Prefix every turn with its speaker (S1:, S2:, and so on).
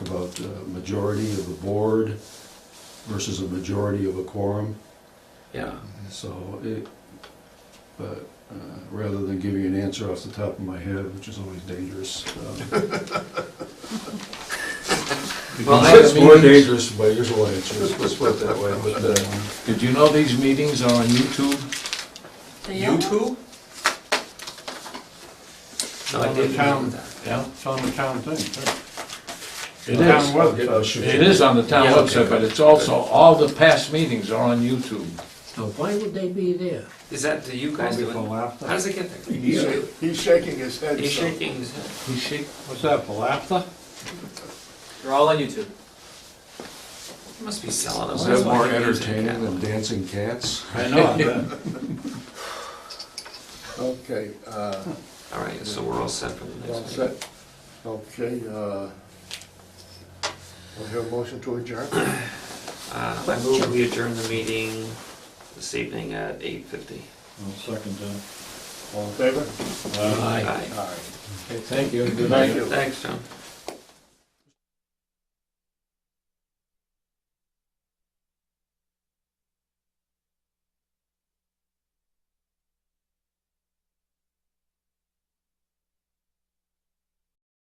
S1: about a majority of the board versus a majority of a quorum.
S2: Yeah,
S1: So it, but uh, rather than giving you an answer off the top of my head, which is always dangerous. um,
S2: Well,
S1: It's more
S2: that means-
S1: dangerous by usual answers, let's put it that way, but uh,
S2: did you know these meetings are on YouTube?
S3: They are?
S4: YouTube?
S2: No, I
S5: On the
S2: didn't know
S5: town,
S2: that.
S5: yeah, it's on the town thing, too.
S2: It
S5: The
S2: is.
S5: town
S1: I'll get-
S5: website.
S1: I'll shoot
S2: It
S1: you.
S2: is on the town
S4: Yeah, okay,
S2: website, but
S4: good,
S2: it's also, all the past meetings are on YouTube.
S6: Now, why would they be there?
S4: Is that, do you guys
S5: Probably
S4: do
S5: for
S4: it?
S5: laughter.
S4: How does it get there?
S7: He's he's shaking his head.
S4: He's
S7: so-
S4: shaking his head.
S2: You see?
S5: What's that, for laughter?
S8: They're all on YouTube.
S4: He Must be selling them.
S1: Is
S4: That's
S1: that
S4: why
S1: more
S4: he uses a
S1: entertaining
S4: cat.
S1: than dancing cats?
S5: I know, I bet.
S7: Okay, uh,
S4: All right, so we're all set for the
S7: all
S4: next meeting.
S7: set. Okay, uh, we'll hear a motion to adjourn.
S4: Uh, I move we adjourn the meeting this evening at eight fifty.
S5: I'll second that.
S7: All in favor?
S5: Uh,
S4: Aye.
S7: Aye.
S5: Okay, thank you, good night.
S7: Thank you.
S4: Thanks, John.